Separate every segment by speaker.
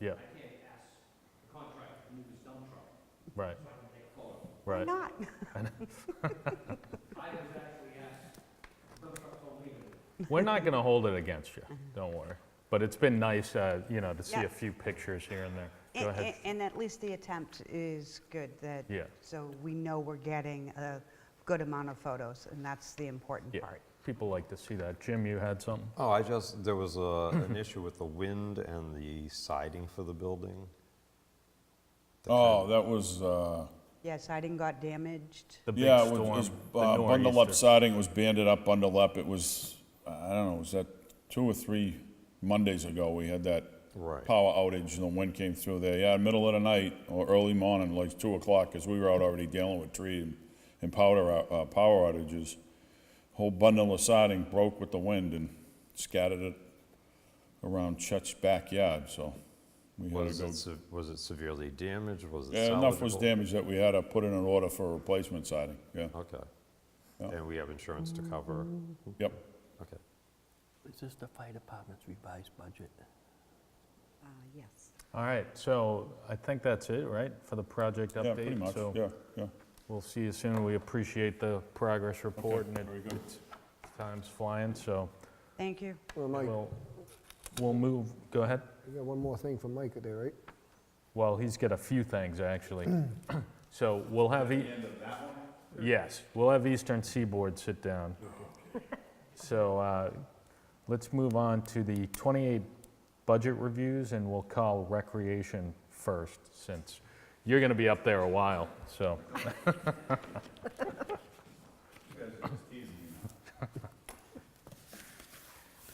Speaker 1: Yeah,
Speaker 2: I can't ask the contractor to move his dump truck
Speaker 1: right,
Speaker 2: so I can take a photo.
Speaker 1: right.
Speaker 3: Not.
Speaker 2: I was actually asked, dump truck don't leave it.
Speaker 1: We're not going to hold it against you, don't worry. But it's been nice, uh, you know, to see
Speaker 3: Yeah.
Speaker 1: a few pictures here and there. Go
Speaker 3: And-
Speaker 1: ahead.
Speaker 3: and- And at least the attempt is good, that,
Speaker 1: Yeah.
Speaker 3: so we know we're getting a good amount of photos, and that's the important
Speaker 1: Yeah,
Speaker 3: part.
Speaker 1: people like to see that. Jim, you had something?
Speaker 4: Oh, I just, there was a, an issue with the wind and the siding for the building.
Speaker 5: Oh, that was, uh,
Speaker 3: Yeah, siding got damaged.
Speaker 1: The big
Speaker 5: yeah, it
Speaker 1: storm,
Speaker 5: was,
Speaker 1: the
Speaker 5: uh, bundle up
Speaker 1: nor'easter.
Speaker 5: siding, it was banded up, bundled up, it was, I don't know, was that two or three Mondays ago, we had that
Speaker 4: Right.
Speaker 5: power outage, and the wind came through there, yeah, middle of the night, or early morning, like two o'clock, because we were out already dealing with tree and, and powder, ou- uh, power outages. Whole bundle of siding broke with the wind and scattered it around Chet's backyard, so we had to
Speaker 4: Was
Speaker 5: go
Speaker 4: it, se- was it severely damaged? Was it
Speaker 5: Yeah, enough was
Speaker 4: salvageable?
Speaker 5: damaged that we had to put in an order for replacement siding, yeah,
Speaker 1: Um,
Speaker 4: Okay. And we have insurance to cover?
Speaker 5: yep.
Speaker 4: Okay.
Speaker 6: Is this the fire department's revised budget?
Speaker 3: Uh, Yes.
Speaker 1: All right, so I think that's it, right, for the project update?
Speaker 5: Yeah, pretty much,
Speaker 1: So
Speaker 5: yeah, yeah.
Speaker 1: we'll see you soon. We appreciate the progress report, and it-
Speaker 5: very good.
Speaker 1: it's- time's flying, so
Speaker 3: Thank you.
Speaker 7: Well, Mike,
Speaker 1: we'll, we'll move, go ahead.
Speaker 7: you got one more thing from Mike there, right?
Speaker 1: Well, he's got a few things, actually. So we'll have. e- Yes, we'll have Eastern Seaboard sit down. So uh, let's move on to the 28 budget reviews, and we'll call Recreation first, since you're going to be up there a while, so.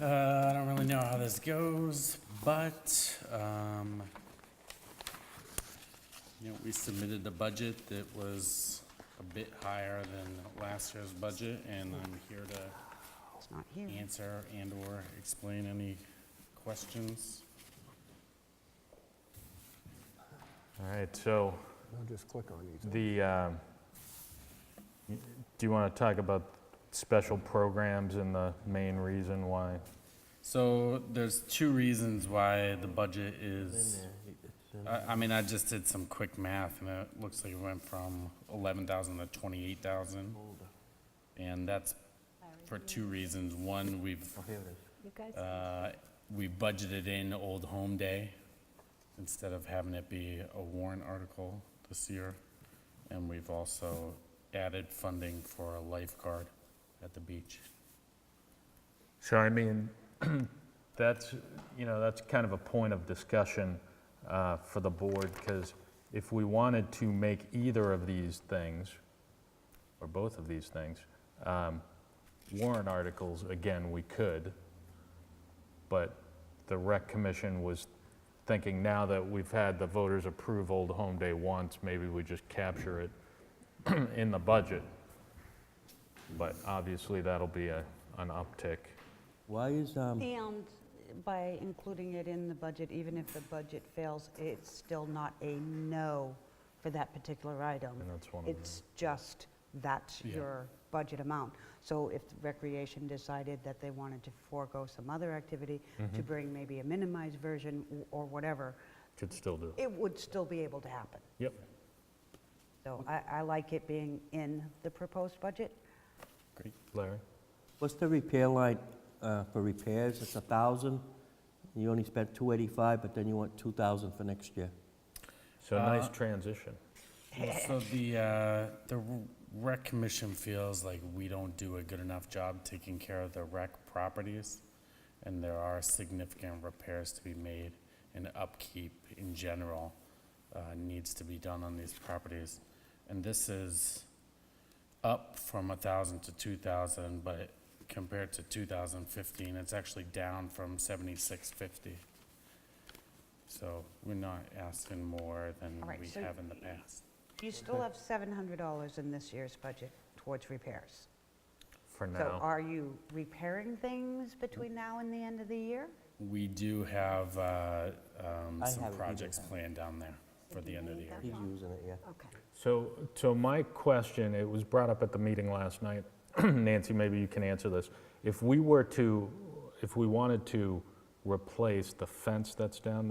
Speaker 8: Uh, I don't really know how this goes, but, um, you know, we submitted a budget that was a bit higher than last year's budget, and I'm here to
Speaker 3: It's not here.
Speaker 8: answer and/or explain any questions.
Speaker 1: All right, so
Speaker 7: I'll just click on these.
Speaker 1: the, um, do you want to talk about special programs and the main reason why?
Speaker 8: So there's two reasons why the budget is, I, I mean, I just did some quick math and it looks like it went from eleven thousand to twenty-eight thousand. And that's for two reasons. One, we've,
Speaker 6: Oh,
Speaker 9: You guys,
Speaker 8: uh, we budgeted in Old Home Day instead of having it be a warrant article this year. And we've also added funding for a lifeguard at the beach.
Speaker 1: So I mean, that's, you know, that's kind of a point of discussion uh, for the board, because if we wanted to make either of these things, or both of these things, um, warrant articles, again, we could, but the rec commission was thinking now that we've had the voters approve Old Home Day once, maybe we just capture it in the budget. But obviously, that'll be a, an uptick.
Speaker 6: Why is, um,
Speaker 3: And by including it in the budget, even if the budget fails, it's still not a no for that particular item.
Speaker 1: And that's one of
Speaker 3: It's just that's
Speaker 8: Yeah.
Speaker 3: your budget amount. So if Recreation decided that they wanted to forego some other activity to bring maybe a minimized version w- or whatever,
Speaker 1: Could still do.
Speaker 3: it would still be able to happen.
Speaker 1: Yep.
Speaker 3: So I, I like it being in the proposed budget.
Speaker 8: Great.
Speaker 1: Larry?
Speaker 6: what's the repair line uh, for repairs? It's a 1,000, you only spent 285, but then you want 2,000 for next year.
Speaker 1: So nice transition.
Speaker 8: Well, So the, uh, the rec commission feels like we don't do a good enough job taking care of the rec properties. And there are significant repairs to be made and upkeep in general, uh, needs to be done on these properties. And this is up from a thousand to two thousand, but compared to two thousand fifteen, it's actually down from seventy-six fifty. So we're not asking more than
Speaker 3: All right,
Speaker 8: we
Speaker 3: so
Speaker 8: have in the past.
Speaker 3: You still have $700 in this year's budget towards repairs.
Speaker 1: For
Speaker 3: So
Speaker 1: now,
Speaker 3: are you repairing things between now and the end of the year?
Speaker 8: We do have uh, um,
Speaker 6: I have
Speaker 8: some
Speaker 6: it, we
Speaker 8: projects
Speaker 6: do have it.
Speaker 8: planned down there for the end of the year.
Speaker 6: He's using it, yeah.
Speaker 3: Okay.
Speaker 1: so, so my question, it was brought up at the meeting last night. Nancy, maybe you can answer this. If we were to, if we wanted to replace the fence that's down there.